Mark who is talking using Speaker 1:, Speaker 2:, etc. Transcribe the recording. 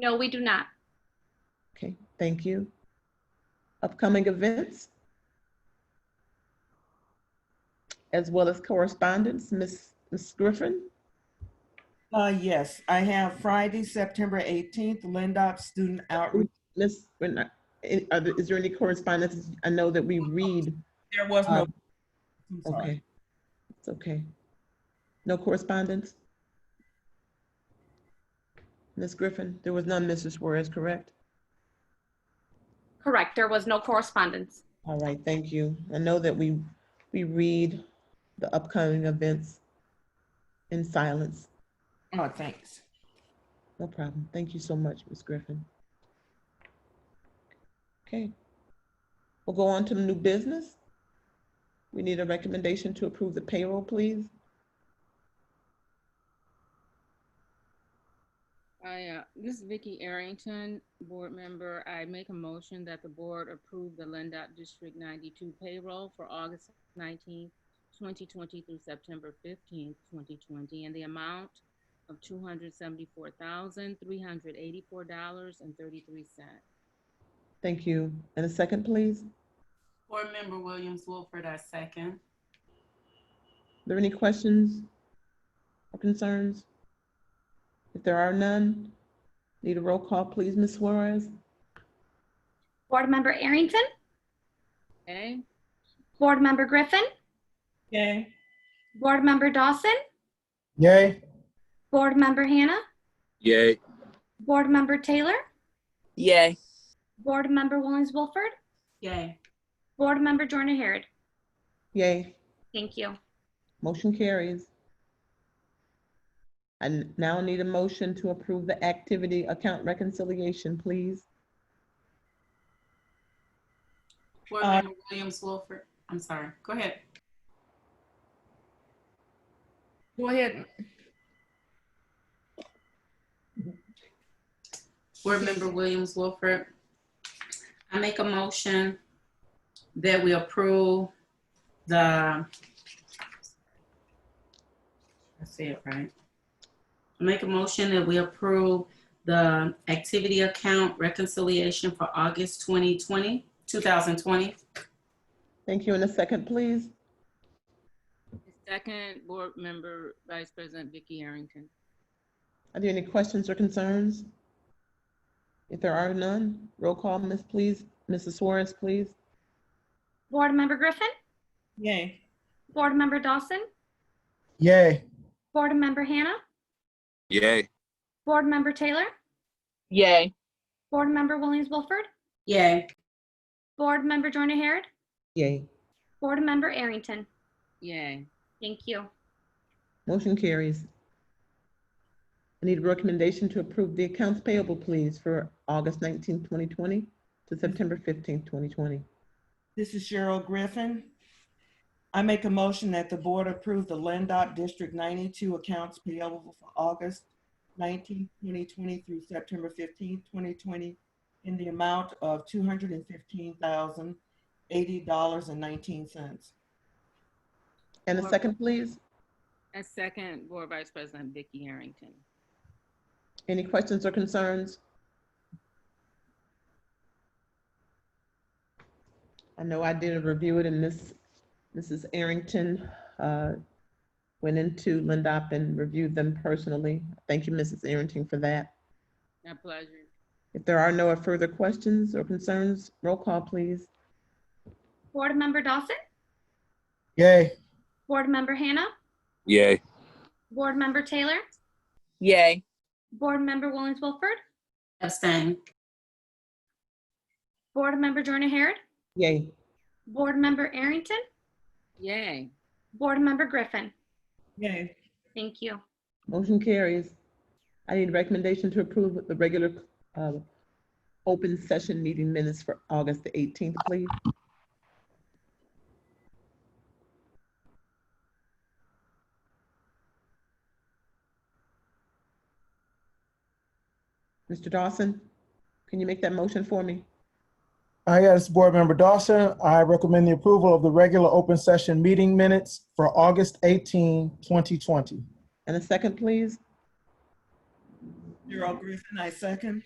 Speaker 1: No, we do not.
Speaker 2: Okay, thank you. Upcoming events? As well as correspondence, Ms. Ms. Griffin?
Speaker 3: Uh, yes, I have Friday, September 18th, Lindop Student Outreach.
Speaker 2: Ms., we're not- i- eh, are there- is there any correspondence? I know that we read, uh,
Speaker 3: There was no. I'm sorry.
Speaker 2: okay. It's okay. No correspondence? Ms. Griffin, there was none, Mrs. Suarez, correct?
Speaker 1: Correct. There was no correspondence.
Speaker 2: All right, thank you. I know that we, we read the upcoming events in silence.
Speaker 3: Oh, thanks.
Speaker 2: No problem. Thank you so much, Ms. Griffin. Okay. We'll go on to the new business. We need a recommendation to approve the payroll, please.
Speaker 4: I, uh, this is Vicki Arrington, board member. I make a motion that the board approve the Lindop District 92 payroll for August 19, 2020 through September 15, 2020, and the amount of $274,384.33.
Speaker 2: Thank you. And a second, please. Are
Speaker 5: Board Member Williams Wolford, I second.
Speaker 2: there any questions or concerns? If there are none, need a roll call, please, Ms. Suarez?
Speaker 1: Board Member Arrington,
Speaker 4: Okay?
Speaker 1: Board Member Griffin,
Speaker 3: Okay.
Speaker 1: Board Member Dawson,
Speaker 6: Yay.
Speaker 1: Board Member Hannah,
Speaker 6: Yay.
Speaker 1: Board Member Taylor,
Speaker 7: Yay.
Speaker 1: Board Member Williams Wilford,
Speaker 5: Yay.
Speaker 1: Board Member Jordan Harrod.
Speaker 2: Yay.
Speaker 1: Thank you.
Speaker 2: Motion carries. I now need a motion to approve the activity account reconciliation, please.
Speaker 5: Board
Speaker 3: Uh,
Speaker 5: Member Williams Wolford, I'm sorry, go ahead.
Speaker 3: Go ahead.
Speaker 5: Board Member Williams Wolford, I make a motion that we approve the, I say it right. Make a motion that we approve the activity account reconciliation for August 2020, 2020.
Speaker 2: Thank you. In a second, please.
Speaker 4: Second, board member, Vice President Vicki Arrington.
Speaker 2: Are there any questions or concerns? If there are none, roll call, Miss, please. Mrs. Suarez, please.
Speaker 1: Board Member Griffin,
Speaker 3: Yay.
Speaker 1: Board Member Dawson,
Speaker 6: Yay.
Speaker 1: Board Member Hannah,
Speaker 6: Yay.
Speaker 1: Board Member Taylor,
Speaker 7: Yay.
Speaker 1: Board Member Williams Wilford,
Speaker 5: Yay.
Speaker 1: Board Member Jordan Harrod,
Speaker 2: Yay.
Speaker 1: Board Member Arrington.
Speaker 4: Yay.
Speaker 1: Thank you.
Speaker 2: Motion carries. I need a recommendation to approve the accounts payable, please, for August 19, 2020 to September 15, 2020.
Speaker 3: This is Cheryl Griffin. I make a motion that the board approve the Lindop District 92 accounts payable for August 19, 2020 through September 15, 2020, in the amount of $215,080.19.
Speaker 2: And a second, please.
Speaker 4: And second, board Vice President Vicki Arrington.
Speaker 2: Any questions or concerns? I know I did review it and Miss, Mrs. Arrington uh, went into Lindop and reviewed them personally. Thank you, Mrs. Arrington, for that.
Speaker 4: My pleasure.
Speaker 2: If there are no further questions or concerns, roll call, please.
Speaker 1: Board Member Dawson,
Speaker 6: Yay.
Speaker 1: Board Member Hannah,
Speaker 6: Yay.
Speaker 1: Board Member Taylor,
Speaker 7: Yay.
Speaker 1: Board Member Williams Wilford,
Speaker 5: Abstain.
Speaker 1: Board Member Jordan Harrod,
Speaker 2: Yay.
Speaker 1: Board Member Arrington,
Speaker 4: Yay.
Speaker 1: Board Member Griffin.
Speaker 3: Yay.
Speaker 1: Thank you.
Speaker 2: Motion carries. I need a recommendation to approve the regular uh, open session meeting minutes for August the 18th, please. Mr. Dawson, can you make that motion for me?
Speaker 6: I yes, Board Member Dawson. I recommend the approval of the regular open session meeting minutes for August 18, 2020.
Speaker 2: And a second, please?
Speaker 3: Gerald Griffin, I second.